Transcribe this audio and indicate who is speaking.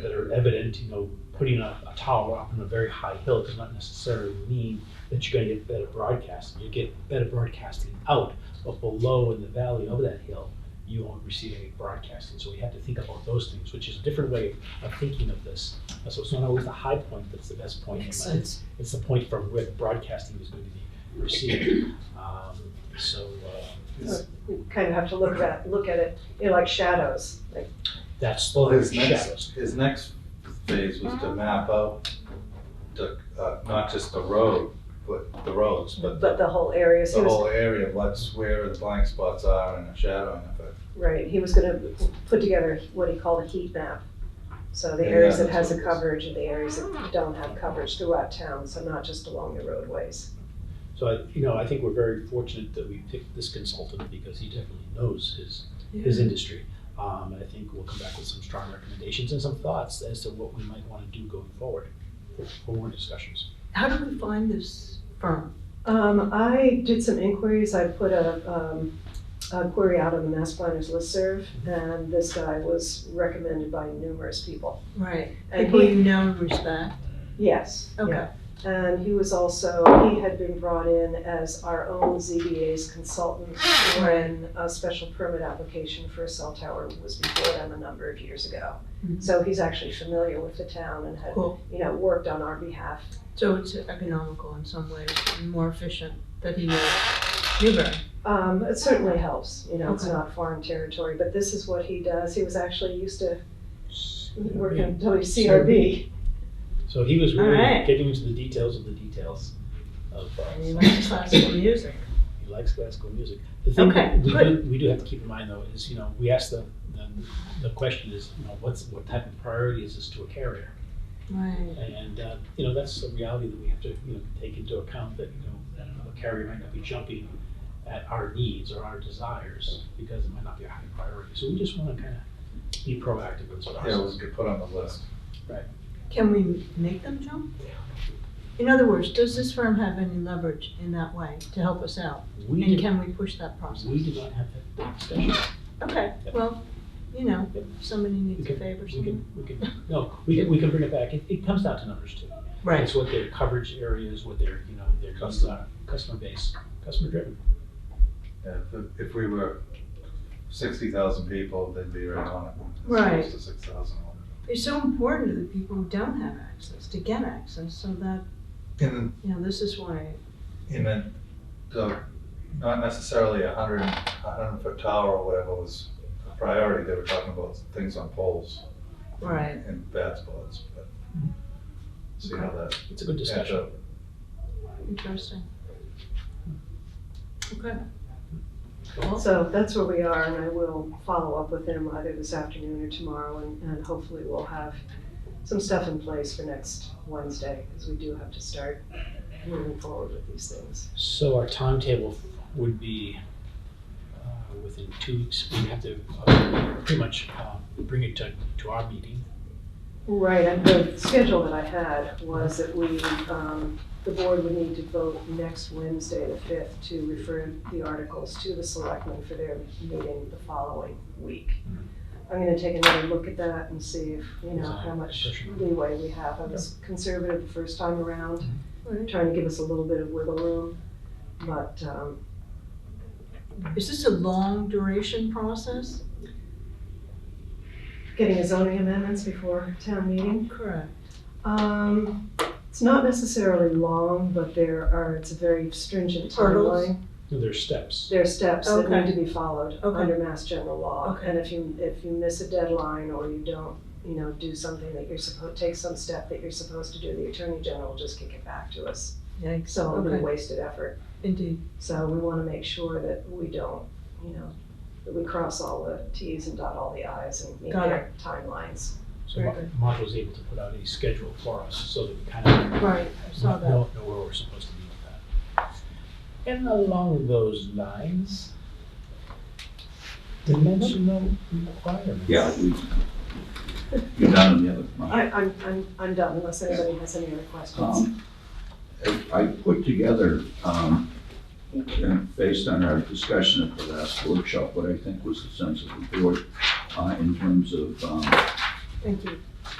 Speaker 1: very evident, you know, putting a, a tower up on a very high hill does not necessarily mean that you're gonna get better broadcasting. You get better broadcasting out, but below in the valley of that hill, you won't receive any broadcasting. So we have to think about those things, which is a different way of thinking of this. Uh, So it's not always the high point that's the best point.
Speaker 2: Makes
Speaker 1: but it's-
Speaker 2: sense.
Speaker 1: It's the point from where the broadcasting is going to be received. Um, So uh,
Speaker 3: You kind of have to look at, look at it, you know, like shadows, like,
Speaker 1: that's
Speaker 4: Well,
Speaker 1: the
Speaker 4: his next,
Speaker 1: shadows.
Speaker 4: his next phase was to map out the, uh, not just the road, but the roads, but
Speaker 3: but the whole area, so
Speaker 4: the
Speaker 3: he was,
Speaker 4: whole area, what's where the blank spots are and the shadowing of it.
Speaker 3: right, he was gonna put together what he called a heat map. So the
Speaker 4: Yeah,
Speaker 3: areas that
Speaker 4: that's
Speaker 3: has a
Speaker 4: what it is.
Speaker 3: coverage and the areas that don't have coverage throughout town, so not just along the roadways.
Speaker 1: So, I- you know, I think we're very fortunate that we picked this consultant because he definitely knows his his industry. Um, and I think we'll come back with some strong recommendations and some thoughts as to what we might want to do going forward for forward discussions.
Speaker 2: How do we find this firm?
Speaker 3: Um, I did some inquiries, I put a, um, a query out on the Mass Planners listserv, and this guy was recommended by numerous people.
Speaker 2: Right.
Speaker 3: And
Speaker 2: People
Speaker 3: he,
Speaker 2: you know and respect.
Speaker 3: yes, yeah.
Speaker 2: Okay.
Speaker 3: And he was also, he had been brought in as our own ZBA's consultant when a special permit application for a cell tower was before them a number of years ago.
Speaker 2: Mhm.
Speaker 3: So he's actually familiar with the town and had,
Speaker 2: Cool.
Speaker 3: you know, worked on our behalf.
Speaker 2: So it's economical in some ways and more efficient that he knows Newbury.
Speaker 3: Um, it certainly helps, you know, it's
Speaker 2: Okay.
Speaker 3: not foreign territory, but this is what he does. He was actually used to working at WCRB.
Speaker 1: So he was
Speaker 2: All
Speaker 1: really
Speaker 2: right.
Speaker 1: getting into the details of the details of uh,
Speaker 2: And he likes classical music.
Speaker 1: He likes classical music. The thing
Speaker 2: Okay,
Speaker 1: that we do,
Speaker 2: good.
Speaker 1: we do have to keep in mind though is, you know, we ask the, the, the question is, you know, what's, what type of priority is this to a carrier?
Speaker 2: Right.
Speaker 1: And, uh, you know, that's a reality that we have to, you know, take into account that, you know, that another carrier might not be jumping at our needs or our desires because it might not be a high priority. So we just want to kind of be proactive in this
Speaker 4: Yeah, it was
Speaker 1: process.
Speaker 4: good put on the list.
Speaker 2: Can we make them jump? In other words, does this firm have any leverage in that way to help us out?
Speaker 1: We
Speaker 2: And
Speaker 1: did,
Speaker 2: can we push that process?
Speaker 1: we did not have that- that discussion.
Speaker 2: Okay,
Speaker 1: Yeah.
Speaker 2: well, you know,
Speaker 1: Yep.
Speaker 2: somebody needs a
Speaker 1: Okay,
Speaker 2: favor,
Speaker 1: We
Speaker 2: someone.
Speaker 1: can, we can, no, we can, we can bring it back. It, it comes down to numbers too. It's what their coverage area is, what their, you know, their customer, customer base, customer driven.
Speaker 4: Yeah, if- If we were sixty thousand people, they'd be right on it. It's
Speaker 2: Right.
Speaker 4: close to six thousand.
Speaker 2: It's so important to the people who don't have access, to get access, so that,
Speaker 4: And then
Speaker 2: you know, this is why,
Speaker 4: And then the, not necessarily a hundred, a hundred foot tower or whatever was a priority, they were talking about things on poles.
Speaker 2: Right.
Speaker 4: And bad spots, but see how that
Speaker 1: It's a good
Speaker 4: adds
Speaker 1: discussion.
Speaker 4: up.
Speaker 2: interesting. Okay.
Speaker 3: So that's where we are, and I will follow up with him either this afternoon or tomorrow, and, and hopefully we'll have some stuff in place for next Wednesday, because we do have to start moving forward with these things.
Speaker 1: So our timetable would be, uh, within two weeks, we'd have to uh, pretty much, uh, bring it to, to our meeting.
Speaker 3: Right, and the schedule that I had was that we, um, the board would need to vote next Wednesday, the fifth, to refer the articles to the selectmen for their meeting the following week. I'm gonna take another look at that and see if, you know, how much leeway we have. I was conservative the first time around,
Speaker 2: Right.
Speaker 3: trying to give us a little bit of wiggle room, but, um,
Speaker 2: Is this a long duration process?
Speaker 3: getting a zoning amendments before town meeting,
Speaker 2: Correct.
Speaker 3: Um, it's not necessarily long, but there are, it's a very stringent
Speaker 2: Hurdles?
Speaker 3: timeline.
Speaker 1: You know, There's steps.
Speaker 3: There are steps that need
Speaker 2: Okay.
Speaker 3: to be followed
Speaker 2: Okay.
Speaker 3: under mass general law.
Speaker 2: Okay.
Speaker 3: And if you, if you miss a deadline or you don't, you know, do something that you're supposed, take some step that you're supposed to do, the attorney general will just kick it back to us.
Speaker 2: Yikes.
Speaker 3: So it'll be
Speaker 2: Okay.
Speaker 3: wasted effort.
Speaker 2: Indeed.
Speaker 3: So we want to make sure that we don't, you know, that we cross all the Ts and dot all the Is and meet
Speaker 2: Got
Speaker 3: their timelines.
Speaker 1: So
Speaker 2: Very
Speaker 1: Mar-
Speaker 2: good.
Speaker 1: Mark was able to put out a schedule for us so that we kind of
Speaker 2: Right, I saw that.
Speaker 1: Know, know where we're supposed to be with that. And along those lines, dimensional requirements.
Speaker 5: Yeah, we, you're done on the other one.
Speaker 3: I, I'm, I'm, I'm done unless anybody has any other questions.
Speaker 5: Um, I- I put together, um, and based on our discussion at the last workshop, what I think was the sense of the board uh, in terms of um,
Speaker 2: Thank you.